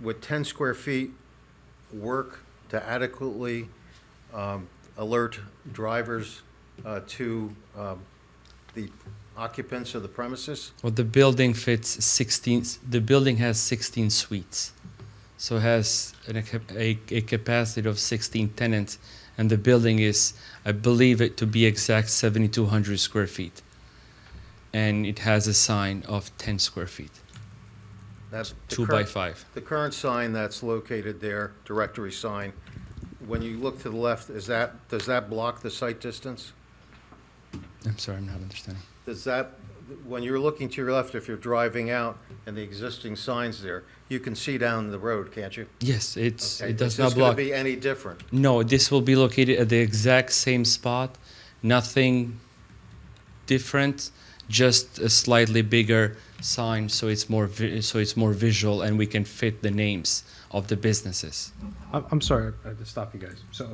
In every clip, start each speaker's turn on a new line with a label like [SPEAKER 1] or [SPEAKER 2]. [SPEAKER 1] with 10 square feet, work to adequately um, alert drivers uh, to um, the occupants of the premises?
[SPEAKER 2] Well, the building fits 16, the building has 16 suites. So it has an, a, cap- a, a capacity of 16 tenants, and the building is, I believe it to be exact, 7,200 square feet. And it has a sign of 10 square feet,
[SPEAKER 1] That's the
[SPEAKER 2] two by
[SPEAKER 1] current-
[SPEAKER 2] five.
[SPEAKER 1] The current sign that's located there, directory sign, when you look to the left, is that, does that block the sight distance?
[SPEAKER 2] I'm sorry, I'm not understanding.
[SPEAKER 1] Does that, when you're looking to your left, if you're driving out and the existing signs there, you can see down the road, can't you?
[SPEAKER 2] Yes, it's,
[SPEAKER 1] Okay,
[SPEAKER 2] it does
[SPEAKER 1] Is
[SPEAKER 2] not
[SPEAKER 1] this going
[SPEAKER 2] block.
[SPEAKER 1] to be any different?
[SPEAKER 2] No, this will be located at the exact same spot. Nothing different, just a slightly bigger sign so it's more vi- so it's more visual and we can fit the names of the businesses.
[SPEAKER 3] I'm, I'm sorry, I had to stop you guys. So,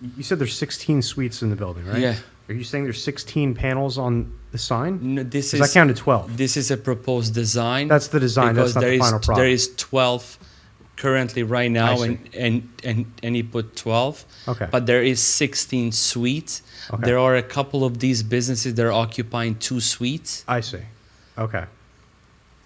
[SPEAKER 3] you you said there's 16 suites in the building, right?
[SPEAKER 2] Yeah.
[SPEAKER 3] Are you saying there's 16 panels on the sign?
[SPEAKER 2] No, this
[SPEAKER 3] Because I
[SPEAKER 2] is
[SPEAKER 3] counted 12.
[SPEAKER 2] this is a proposed design.
[SPEAKER 3] That's the design, that's
[SPEAKER 2] because
[SPEAKER 3] not
[SPEAKER 2] there
[SPEAKER 3] the
[SPEAKER 2] is
[SPEAKER 3] final
[SPEAKER 2] there
[SPEAKER 3] product.
[SPEAKER 2] is 12 currently right now
[SPEAKER 3] see.
[SPEAKER 2] and, and and and he put 12
[SPEAKER 3] Okay.
[SPEAKER 2] but there is 16 suites
[SPEAKER 3] Okay.
[SPEAKER 2] there are a couple of these businesses that are occupying two suites
[SPEAKER 3] I see. Okay.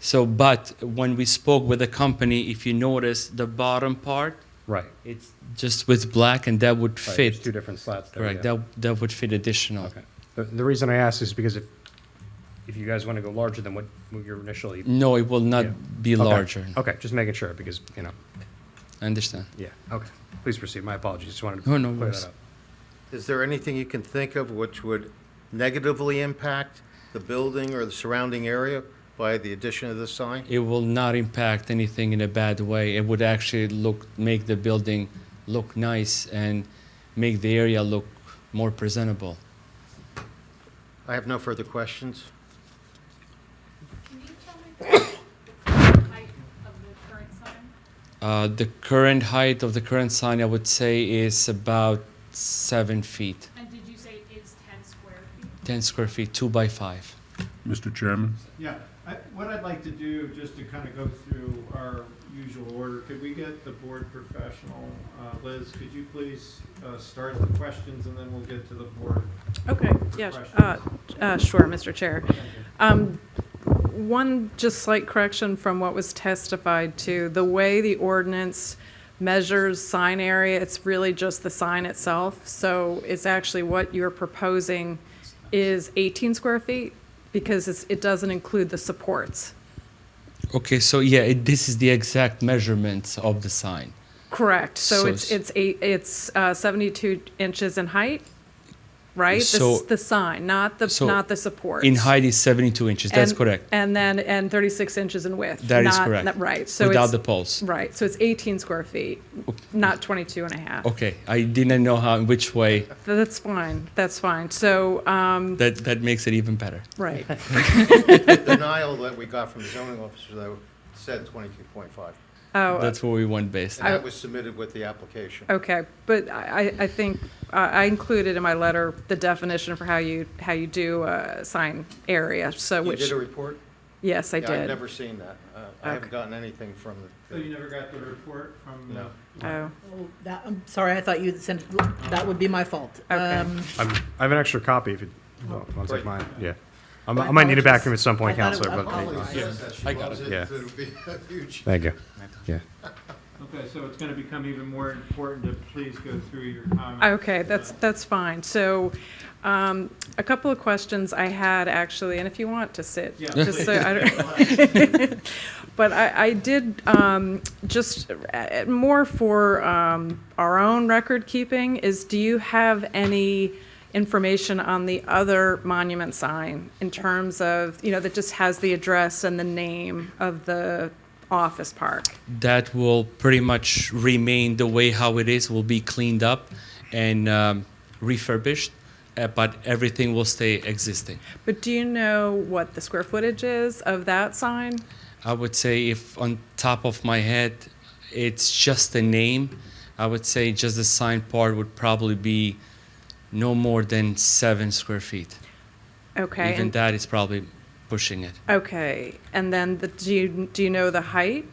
[SPEAKER 2] So, but when we spoke with the company, if you notice the bottom part,
[SPEAKER 3] Right.
[SPEAKER 2] it's just with black, and that would fit.
[SPEAKER 3] Right, There's two different slats there.
[SPEAKER 2] Correct.
[SPEAKER 3] yeah.
[SPEAKER 2] That that would fit additional.
[SPEAKER 3] Okay. The, the reason I asked is because if, if you guys want to go larger than what what you're initially.
[SPEAKER 2] No, it will not
[SPEAKER 3] Yeah.
[SPEAKER 2] be
[SPEAKER 3] Okay.
[SPEAKER 2] larger.
[SPEAKER 3] Okay, just making sure because, you know,
[SPEAKER 2] I understand.
[SPEAKER 3] yeah, okay. Please proceed. My apologies. Just wanted to
[SPEAKER 2] No, no
[SPEAKER 3] clear
[SPEAKER 2] worries.
[SPEAKER 3] that up.
[SPEAKER 1] Is there anything you can think of which would negatively impact the building or the surrounding area by the addition of this sign?
[SPEAKER 2] It will not impact anything in a bad way. It would actually look make the building look nice and make the area look more presentable.
[SPEAKER 1] I have no further questions.
[SPEAKER 4] Can you tell me the height of the current sign?
[SPEAKER 2] Uh, the current height of the current sign, I would say, is about seven feet,
[SPEAKER 4] And did you say it is ten square feet?
[SPEAKER 2] ten square feet, two by five.
[SPEAKER 5] Mr. Chairman?
[SPEAKER 6] Yeah, I, what I'd like to do, just to kind of go through our usual order, could we get the board professional, uh, Liz, could you please, uh, start the questions and then we'll get to the board?
[SPEAKER 7] Okay, yeah, uh,
[SPEAKER 6] questions.
[SPEAKER 7] uh, sure, Mr. Chair. Um, One just slight correction from what was testified to, the way the ordinance measures sign area, it's really just the sign itself. So it's actually what you're proposing is 18 square feet because it's- it doesn't include the supports.
[SPEAKER 2] Okay, so yeah, it, this is the exact measurements of the sign.
[SPEAKER 7] Correct, so
[SPEAKER 2] So
[SPEAKER 7] it's,
[SPEAKER 2] it's-
[SPEAKER 7] it's eight, it's uh, 72 inches in height, right? The s-
[SPEAKER 2] So-
[SPEAKER 7] The sign, not the,
[SPEAKER 2] so
[SPEAKER 7] not the supports.
[SPEAKER 2] In height is 72 inches. That's
[SPEAKER 7] And-
[SPEAKER 2] correct.
[SPEAKER 7] And then, and 36 inches in width.
[SPEAKER 2] That is
[SPEAKER 7] not-
[SPEAKER 2] correct.
[SPEAKER 7] not- Right, so
[SPEAKER 2] without
[SPEAKER 7] it's,
[SPEAKER 2] the poles.
[SPEAKER 7] right, so it's 18 square feet, not 22 and a half.
[SPEAKER 2] Okay, I didn't know how which way.
[SPEAKER 7] That's fine, that's fine. So, um,
[SPEAKER 2] That that makes it even better.
[SPEAKER 7] right,
[SPEAKER 1] The denial that we got from the zoning officer, though, said 22.5.
[SPEAKER 7] oh,
[SPEAKER 2] That's what we want based.
[SPEAKER 1] And that was submitted with the application.
[SPEAKER 7] okay, but I, I I think, uh, I included in my letter the definition for how you, how you do uh sign area, so
[SPEAKER 1] You
[SPEAKER 7] which,
[SPEAKER 1] did a report?
[SPEAKER 7] yes, I
[SPEAKER 1] Yeah, I've
[SPEAKER 7] did.
[SPEAKER 1] never seen that. Uh, I haven't
[SPEAKER 7] Okay.
[SPEAKER 1] gotten anything from
[SPEAKER 6] So you
[SPEAKER 1] the,
[SPEAKER 6] never got the report from the?
[SPEAKER 1] No.
[SPEAKER 7] Oh,
[SPEAKER 8] Oh, that, I'm sorry, I thought you sent, that would be my fault.
[SPEAKER 7] Okay.
[SPEAKER 8] Um,
[SPEAKER 3] I'm, I have an extra copy if you want to take mine. Yeah. I'm,
[SPEAKER 8] My
[SPEAKER 3] I might need it back from you at
[SPEAKER 8] apologies.
[SPEAKER 3] some point,
[SPEAKER 8] I thought it
[SPEAKER 3] Counselor.
[SPEAKER 8] was-
[SPEAKER 3] But
[SPEAKER 1] Holly
[SPEAKER 8] Yeah.
[SPEAKER 1] says that she
[SPEAKER 2] I got
[SPEAKER 1] loves
[SPEAKER 2] it.
[SPEAKER 1] it,
[SPEAKER 3] Yeah.
[SPEAKER 1] so it'll be a huge.
[SPEAKER 3] Thank you. Yeah.
[SPEAKER 6] Okay, so it's gonna become even more important to please go through your comments.
[SPEAKER 7] Okay, that's, that's fine. So, um, a couple of questions I had actually, and if you want to sit,
[SPEAKER 6] Yeah,
[SPEAKER 7] just so I don't. But I, I did, um, just uh, more for, um, our own record keeping is do you have any information on the other monument sign in terms of, you know, that just has the address and the name of the office park?
[SPEAKER 2] That will pretty much remain the way how it is. Will be cleaned up and um, refurbished, uh, but everything will stay existing.
[SPEAKER 7] But do you know what the square footage is of that sign?
[SPEAKER 2] I would say if on top of my head, it's just a name. I would say just the sign part would probably be no more than seven square feet.
[SPEAKER 7] Okay.
[SPEAKER 2] Even
[SPEAKER 7] and-
[SPEAKER 2] that is probably pushing it.
[SPEAKER 7] Okay, and then the, do you, do you know the height?